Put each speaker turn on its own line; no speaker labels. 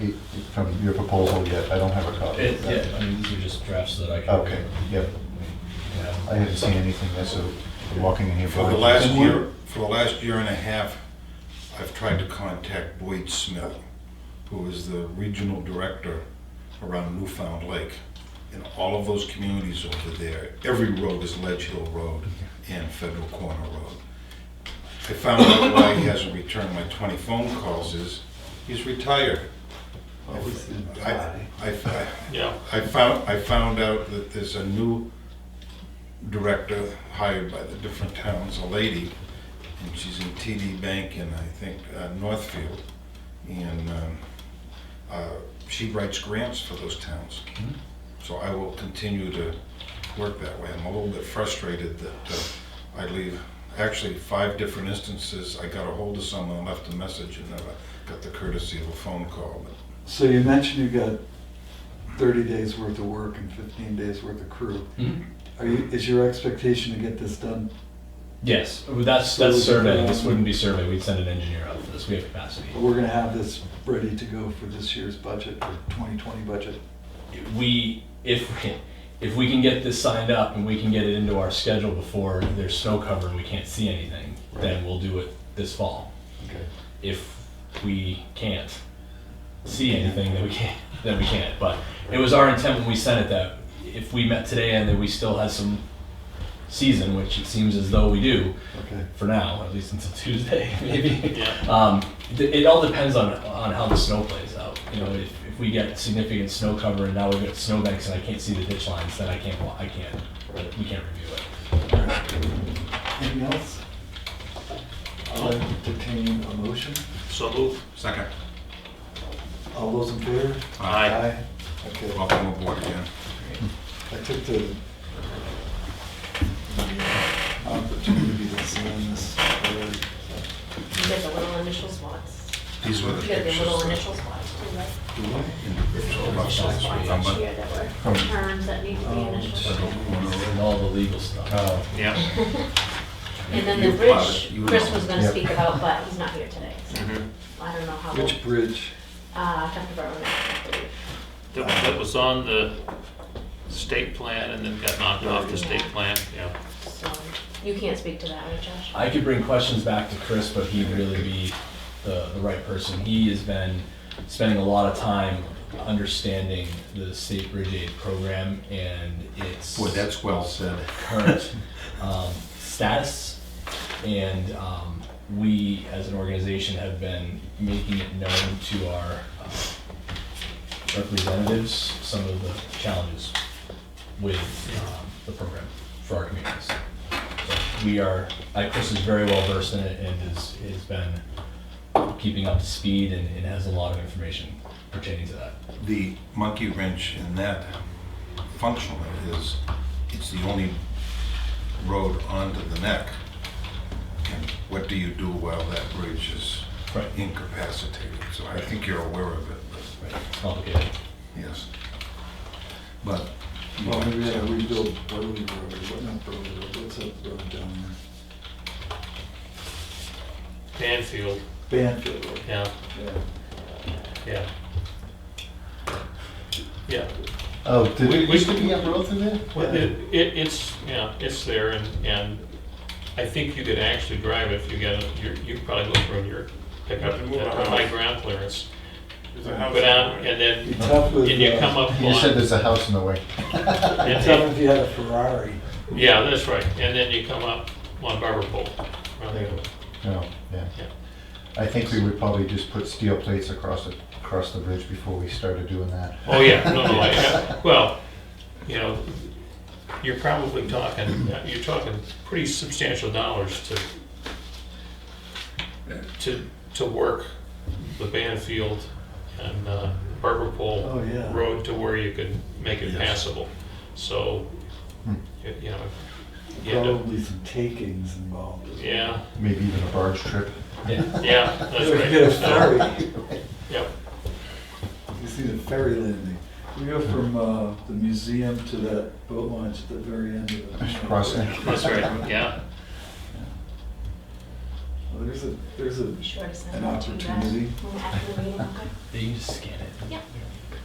from your proposal yet, I don't have a copy.
It,
of that.
yeah, I mean, these are just drafts that I can.
Okay, yep,
Yeah.
Oh, I haven't seen anything yet, so walking in here.
For the
blind.
last year, for the last year and a half, I've tried to contact Boyd Smith, who is the regional director around Newfound Lake. In all of those communities over there, every road is Ledge Hill Road and Federal Corner Road. I found out why he hasn't returned my twenty phone calls is, he's retired. I, I, I-
Yeah.
I found, I found out that there's a new director hired by the different towns, a lady, and she's in TD Bank in, I think, uh, Northfield. And um, uh, she writes grants for those towns.
Hmm.
So I will continue to work that way. I'm a little bit frustrated that uh, I leave, actually, five different instances, I got a hold of someone, left a message, and never got the courtesy of a phone call. But
So you mentioned you got thirty days worth of work and fifteen days worth of crew.
Mhm.
Are you, is your expectation to get this done?
Yes, well, that's,
So
that's
it's
survey,
been-
this wouldn't be survey, we'd send an engineer out for this, we have capacity.
We're gonna have this ready to go for this year's budget, for twenty twenty budget.
We, if, if we can get this signed up and we can get it into our schedule before there's snow cover and we can't see anything, then
Right.
we'll do it this fall.
Okay.
If we can't see anything, then we can't, then we can't, but it was our intent when we sent it that if we met today and that we still had some season, which it seems as though we do,
Okay.
for now, at least until Tuesday, maybe.
Yeah.
Um, th- it all depends on, on how the snow plays out. You know, if, if we get significant snow cover and now we've got snowbanks and I can't see the ditch lines, then I can't, wa- I can't, we can't review it.
Anything else? I'll entertain a motion.
So move.
Second,
All those in favor?
Aye.
Okay.
welcome aboard again.
I took the the opportunity to sign this. uh, early.
You get the little initial spots.
These were the
You get the
pictures.
little initial spots too, right?
Do I?
Individual
Initial
buses,
spots each
remember?
year that were terms that need to
Oh,
be
um,
initialed.
And all the legal stuff.
Oh,
Yeah.
And then
You
the
plot it,
bridge,
you
Chris
know.
was gonna
Yep.
speak about, but he's not here today, so
mm-hmm.
I don't know how. we'll-
Which bridge?
Uh, Dr. Berman, I believe.
That that was on the state plan and then got knocked off the state plan, yeah.
so you can't speak to that, right, Josh?
I could bring questions back to Chris, but he'd really be the, the right person. He has been spending a lot of time understanding the state bridge aid program and its.
Boy, that's well said.
current um, status. And um, we, as an organization, have been making it known to our uh, representatives some of the challenges with um, the program for our communities. So We are, I, Chris is very well versed in it and is, has been keeping up to speed and and has a lot of information pertaining to that.
The monkey wrench in that functionally is, it's the only road onto the neck. And what do you do while that bridge is
Right.
incapacitated? So I think you're aware of it, but,
It's complicated.
yes. But.
Well, maybe I rebuild Burley Road, what not Burley Road, what's that road down
Banfield,
there? Banfield Road.
yeah,
Yeah.
yeah. Yeah,
oh, did
We-
we,
we-
used to be up road through there?
Well, it, it, it's, yeah, it's there and, and I think you could actually drive it if you get, a- you, you could probably look from your pickup
Move a
at
house.
high ground clearance.
There's a house
Go down
somewhere.
and
Be
then,
tough with,
and you
uh,
come up
You said
on,
there's a house in the way.
be
and
tough if you had a Ferrari.
yeah, that's right, and then you come up on Barber Pole. around the other.
No, Oh, yeah.
Yeah.
I think we would probably just put steel plates across it, across the bridge before we started doing that.
Oh, yeah, no, no, I- yeah, well, you know, you're probably talking, you're talking pretty substantial dollars to, to, to work the Banfield and uh, Barber Pole
Oh, yeah.
Road to where you could make it
Yes.
passable, so,
Hmm.
you you know, you end up-
Probably some takings involved. as well.
yeah,
Maybe even a barge trip.
Yeah.
yeah, that's
If you get a
right. So,
ferry,
Yep,
you see the ferry landing. We go from, uh, the museum to that boat launch at the very end of it.
Crossing.
that's right, yeah.
Look There's a, there's a
Be sure to send
An
that to you guys
opportunity.
after the meeting, okay?
They can just scan it.
Yeah.